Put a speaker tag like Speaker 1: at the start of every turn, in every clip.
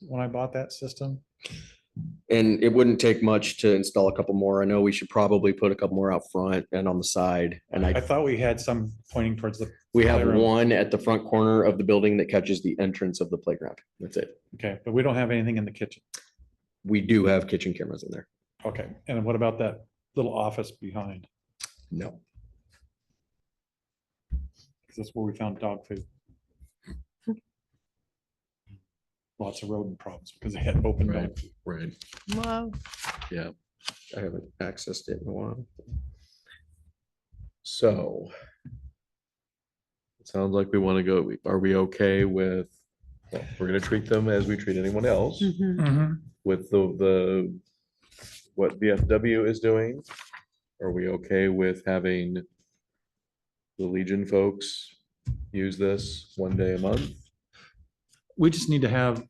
Speaker 1: when I bought that system.
Speaker 2: And it wouldn't take much to install a couple more. I know we should probably put a couple more out front and on the side. And
Speaker 1: I
Speaker 2: I,
Speaker 1: thought we had some pointing towards the,
Speaker 2: we have
Speaker 1: playroom.
Speaker 2: one at the front corner of the building that catches the entrance of the playground. That's it.
Speaker 1: okay, but we don't have anything in the kitchen.
Speaker 2: We do have kitchen cameras in there.
Speaker 1: Okay, and what about that little office behind?
Speaker 2: No.
Speaker 1: Because that's where we found dog food. Lots of rodent problems because they had open dog
Speaker 2: Right.
Speaker 1: food.
Speaker 2: Right.
Speaker 3: Wow.
Speaker 2: I haven't accessed it in a while. So.
Speaker 4: It Sounds like we want to go, are we okay with, well, we're gonna treat them as we treat anyone
Speaker 3: Hmm.
Speaker 4: else
Speaker 1: Mm-hmm.
Speaker 4: with the, the, what VFW is doing? Are we okay with having the Legion folks use this one day a month?
Speaker 1: We just need to have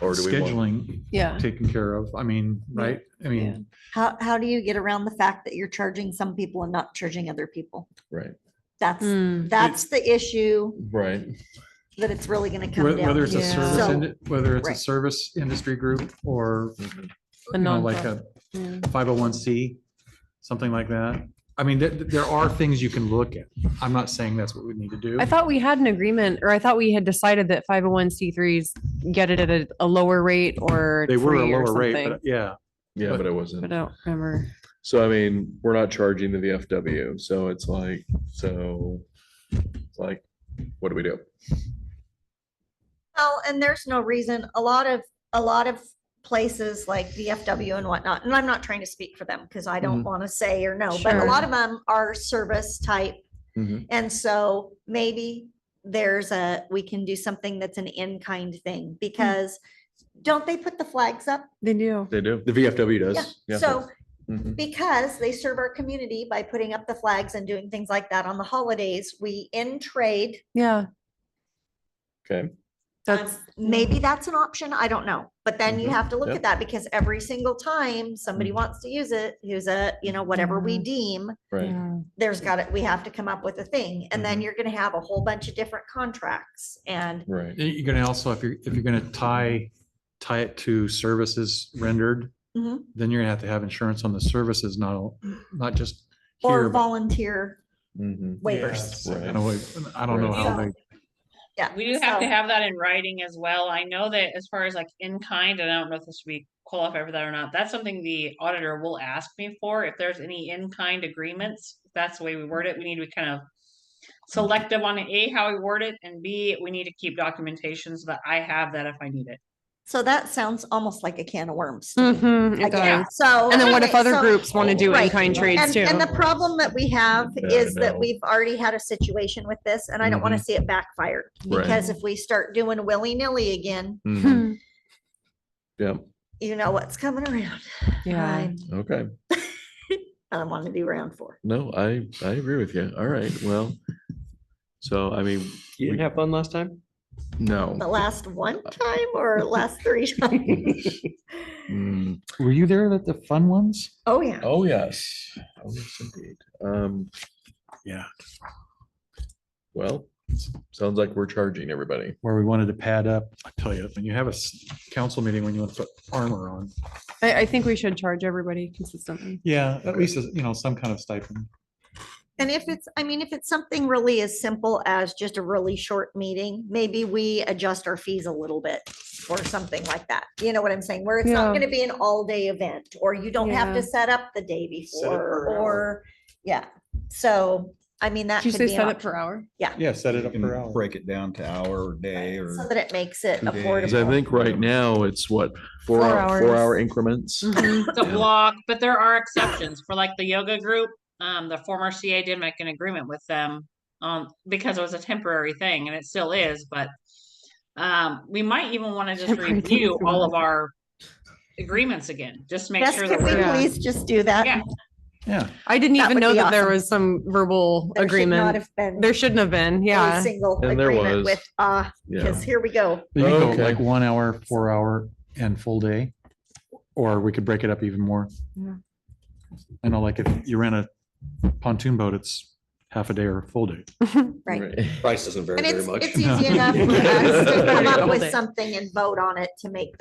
Speaker 4: Or do we want?
Speaker 1: scheduling
Speaker 3: Yeah.
Speaker 1: taken care of. I mean, right? I mean,
Speaker 5: How, how do you get around the fact that you're charging some people and not charging other people?
Speaker 4: Right,
Speaker 5: That's,
Speaker 3: Mm.
Speaker 5: that's the issue
Speaker 4: right.
Speaker 5: that it's really gonna come
Speaker 1: whe-
Speaker 5: down
Speaker 1: whether it's
Speaker 5: to.
Speaker 1: a
Speaker 3: Yeah.
Speaker 1: service,
Speaker 5: So-
Speaker 1: ind- whether it's a
Speaker 5: Right.
Speaker 1: service industry group or, you
Speaker 3: A
Speaker 1: know, like
Speaker 3: nonprofit.
Speaker 1: a
Speaker 3: Hmm.
Speaker 1: five oh one C, something like that. I mean, there, there are things you can look at. I'm not saying that's what we need to do.
Speaker 3: I thought we had an agreement, or I thought we had decided that five oh one C threes get it at a, a lower rate or
Speaker 1: They were a
Speaker 3: free or
Speaker 1: lower rate,
Speaker 3: something,
Speaker 1: but yeah.
Speaker 4: Yeah, but it wasn't.
Speaker 3: But I don't remember.
Speaker 4: So I mean, we're not charging the VFW, so it's like, so, it's like, what do we do?
Speaker 5: Well, and there's no reason, a lot of, a lot of places like VFW and whatnot, and I'm not trying to speak for them because I
Speaker 1: Mm-hmm.
Speaker 5: don't want to say or no, but a
Speaker 3: Sure.
Speaker 5: lot of them are service type.
Speaker 1: Mm-hmm.
Speaker 4: Mhm.
Speaker 5: And so maybe there's a, we can do something that's an in-kind
Speaker 1: Hmm.
Speaker 5: thing because don't they put the flags up?
Speaker 3: They do.
Speaker 4: They do.
Speaker 2: The VFW does.
Speaker 5: Yeah, so
Speaker 4: Mhm.
Speaker 5: because they serve our community by putting up the flags and doing things like that on the holidays, we in trade.
Speaker 3: Yeah.
Speaker 4: Okay.
Speaker 5: um,
Speaker 3: That's
Speaker 5: Maybe that's an option. I don't know. But then you
Speaker 4: Mhm,
Speaker 5: have to look
Speaker 4: yep.
Speaker 5: at that because every single time somebody wants to use it, who's a, you know, whatever we
Speaker 3: Yeah.
Speaker 5: deem,
Speaker 4: Right.
Speaker 5: there's got it, we have to come up with a thing. And then you're gonna have a whole bunch of different contracts and
Speaker 4: Right.
Speaker 1: You- You're gonna also, if you're, if you're gonna tie, tie it to services rendered,
Speaker 3: Mm-hmm.
Speaker 5: Mhm.
Speaker 1: then you're gonna have to have insurance on the services, not, not just here.
Speaker 5: or
Speaker 1: but-
Speaker 5: volunteer
Speaker 4: hmm
Speaker 5: waivers.
Speaker 1: Yeah, I don't- I don't know how they,
Speaker 5: Yeah.
Speaker 6: We do have to
Speaker 5: so-
Speaker 6: have that in writing as well. I know that as far as like in kind, and I don't know if this would be qualified for that or not, that's something the auditor will ask me for. If there's any in kind agreements, if that's the way we word it. We need to be kind of selective on A, how we word it, and B, we need to keep documentation so that I have that if I need it.
Speaker 5: So that sounds almost like a can of worms. to me.
Speaker 3: Mhm,
Speaker 5: Like,
Speaker 3: It
Speaker 5: yeah,
Speaker 3: does.
Speaker 5: So.
Speaker 3: And then what if
Speaker 5: okay,
Speaker 3: other
Speaker 5: so-
Speaker 3: groups want to do
Speaker 5: Right.
Speaker 3: in-kind trades
Speaker 5: And,
Speaker 3: too?
Speaker 5: and the problem that we have
Speaker 4: Yeah, I
Speaker 5: is that
Speaker 4: know. Mm-hmm.
Speaker 5: we've already had a situation with this and I don't want to see it backfire.
Speaker 4: Right.
Speaker 5: Because if we start doing willy nilly again,
Speaker 4: Mhm.
Speaker 3: Hmm,
Speaker 4: Yeah,
Speaker 5: you know what's coming around.
Speaker 3: Yeah.
Speaker 5: I
Speaker 4: okay.
Speaker 5: I want to be around for.
Speaker 4: No, I, I agree with you. All right, well. So, I mean,
Speaker 2: You didn't have fun last time?
Speaker 4: no.
Speaker 5: The last one time or last three times?
Speaker 4: Mm,
Speaker 1: were you there at the fun ones?
Speaker 5: Oh, yeah.
Speaker 4: Oh, yes. Oh, yes, indeed. Um,
Speaker 1: Yeah.
Speaker 4: well, s- sounds like we're charging everybody.
Speaker 1: Where we wanted to pad up, I tell you, when you have a s- council meeting, when you want to put armor on.
Speaker 3: I, I think we should charge everybody consistently.
Speaker 1: Yeah, at least, you know, some kind of stipend.
Speaker 5: And if it's, I mean, if it's something really as simple as just a really short meeting, maybe we adjust our fees a little bit or something like that. You know what I'm saying? Where it's not
Speaker 3: Yeah.
Speaker 5: gonna be an all-day event, or you don't have
Speaker 3: Yeah.
Speaker 5: to set up the day
Speaker 1: Set it per
Speaker 5: before,
Speaker 1: hour.
Speaker 5: or, yeah. So, I mean, that
Speaker 3: Did you
Speaker 5: could
Speaker 3: say
Speaker 5: be an
Speaker 3: set it
Speaker 5: option.
Speaker 3: per hour?
Speaker 1: Yeah, set it
Speaker 7: You
Speaker 1: up per
Speaker 7: can
Speaker 1: hour.
Speaker 7: break it down to hour or day or.
Speaker 5: So that it makes it
Speaker 7: Two days.
Speaker 4: Cause I
Speaker 5: affordable.
Speaker 4: think right now it's what, four,
Speaker 3: Four
Speaker 4: hour- four
Speaker 3: hours. Mm.
Speaker 4: hour increments?
Speaker 5: Mm-hmm.
Speaker 6: It's a block, but there are exceptions for like the yoga group. Um, the former CA did make an agreement with them um, because it was a temporary thing and it still is, but um, we might even want to just
Speaker 3: Temporary thing
Speaker 6: review
Speaker 3: is the
Speaker 6: all
Speaker 3: word.
Speaker 6: of our agreements again, just to make
Speaker 5: Yes,
Speaker 6: sure that
Speaker 5: could we
Speaker 6: we're, uh,
Speaker 3: Yeah.
Speaker 5: please just do that?
Speaker 6: Yeah.
Speaker 1: Yeah,
Speaker 3: I didn't
Speaker 5: That
Speaker 3: even
Speaker 5: would
Speaker 3: know
Speaker 5: be
Speaker 3: that there
Speaker 5: awesome.
Speaker 3: was some verbal
Speaker 5: There should
Speaker 3: agreement.
Speaker 5: not have been
Speaker 3: There shouldn't have been.
Speaker 5: a
Speaker 3: Yeah.
Speaker 5: single
Speaker 4: And there
Speaker 5: agreement
Speaker 4: was.
Speaker 5: with, uh,
Speaker 4: Yeah,
Speaker 5: because here we go.
Speaker 1: you can go
Speaker 4: Okay.
Speaker 1: like one hour, four hour and full day, or we could break it up even more.
Speaker 3: Yeah.
Speaker 1: I know, like if you rent a pontoon boat, it's half a day or a full day.
Speaker 5: Right.
Speaker 2: Price doesn't vary
Speaker 5: And
Speaker 2: very
Speaker 5: it's,
Speaker 2: much.
Speaker 5: it's easy enough for us to come
Speaker 3: Yeah.
Speaker 5: up with something and vote on it to make